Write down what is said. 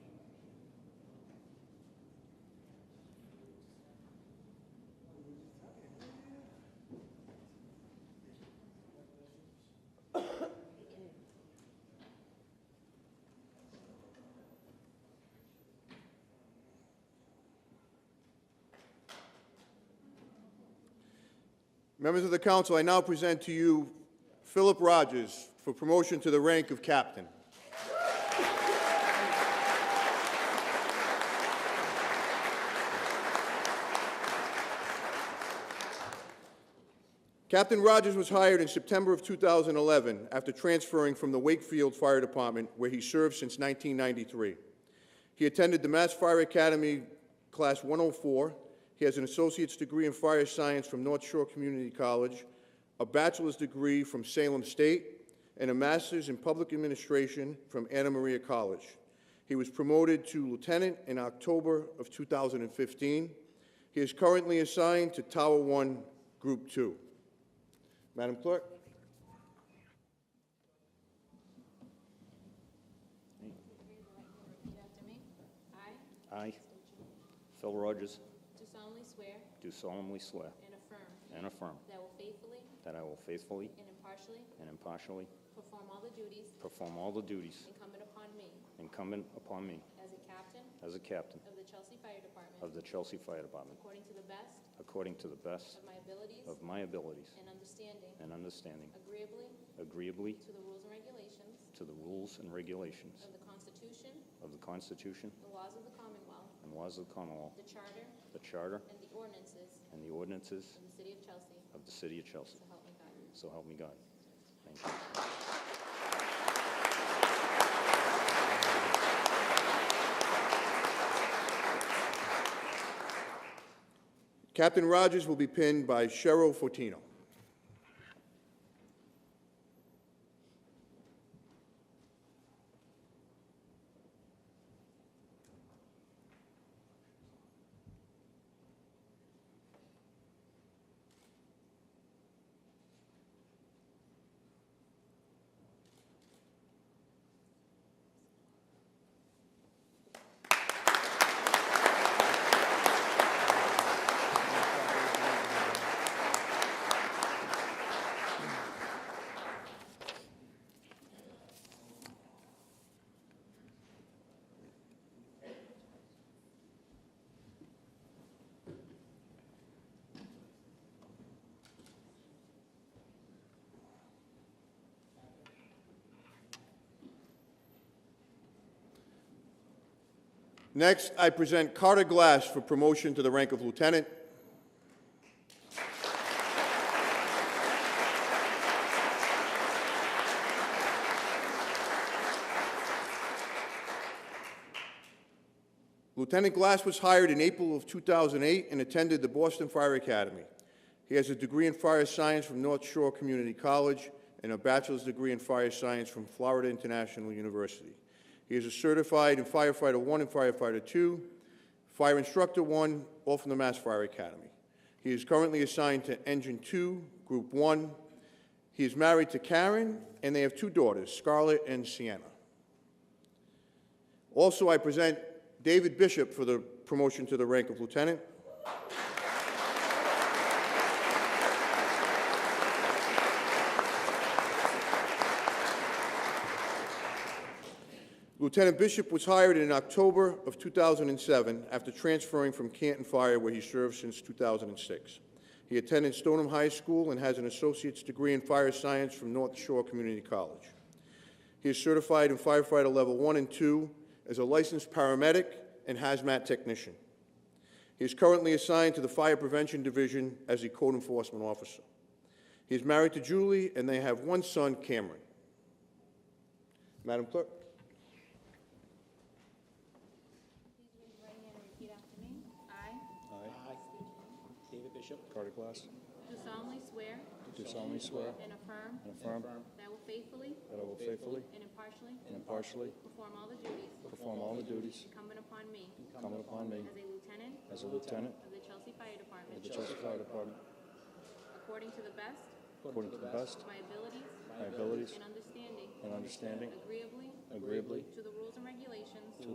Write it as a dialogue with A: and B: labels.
A: Members of the council, I now present to you Philip Rogers for promotion to the rank of captain. Captain Rogers was hired in September of 2011 after transferring from the Wakefield Fire Department, where he served since 1993. He attended the Mass Fire Academy Class 104. He has an associate's degree in fire science from North Shore Community College, a bachelor's degree from Salem State, and a master's in public administration from Anna Maria College. He was promoted to lieutenant in October of 2015. He is currently assigned to Tower 1, Group 2. Madam Clerk?
B: Repeat after me. I
C: I, Phil Rogers,
B: do solemnly swear
C: do solemnly swear
B: and affirm
C: and affirm
B: that I will faithfully
C: that I will faithfully
B: and impartially
C: and impartially
B: perform all the duties
C: perform all the duties
B: incumbent upon me
C: incumbent upon me
B: as a captain
C: as a captain
B: of the Chelsea Fire Department
C: of the Chelsea Fire Department,
B: according to the best
C: according to the best
B: of my abilities
C: of my abilities
B: and understanding,
C: and understanding,
B: agreeably
C: agreeably
B: to the rules and regulations
C: to the rules and regulations
B: of the Constitution,
C: of the Constitution
B: the laws of the Commonwealth,
C: and laws of the Commonwealth,
B: the Charter,
C: the Charter,
B: and the ordinances
C: and the ordinances
B: of the City of Chelsea,
C: of the City of Chelsea.
B: so help me God.
C: So help me God. Thank you.
A: Captain Rogers will be pinned by Cheryl Fortino. Next, I present Carter Glass for promotion to the rank of lieutenant. Lieutenant Glass was hired in April of 2008 and attended the Boston Fire Academy. He has a degree in fire science from North Shore Community College and a bachelor's degree in fire science from Florida International University. He is a certified in firefighter 1 and firefighter 2, fire instructor 1, all from the Mass Fire Academy. He is currently assigned to Engine 2, Group 1. He is married to Karen, and they have two daughters, Scarlett and Sienna. Also, I present David Bishop for the promotion to the rank of lieutenant. Lieutenant Bishop was hired in October of 2007 after transferring from Canton Fire, where he served since 2006. He attended Stoneham High School and has an associate's degree in fire science from North Shore Community College. He is certified in firefighter level 1 and 2, is a licensed paramedic and hazmat technician. He is currently assigned to the Fire Prevention Division as a code enforcement officer. He is married to Julie, and they have one son, Cameron. Madam Clerk?
B: Please raise your right hand and repeat after me. I
D: I, David Bishop,
E: Carter Glass,
B: do solemnly swear
E: do solemnly swear
B: and affirm
E: and affirm
B: that I will faithfully
E: that I will faithfully
B: and impartially
E: and impartially
B: perform all the duties
E: perform all the duties
B: incumbent upon me
E: incumbent upon me
B: as a lieutenant
E: as a lieutenant
B: of the Chelsea Fire Department
E: of the Chelsea Fire Department
B: according to the best
E: according to the
B: of
E: best
B: my abilities
E: of my abilities
B: and understanding,
E: and understanding,
B: agreeably
E: agreeably
B: to the rules and regulations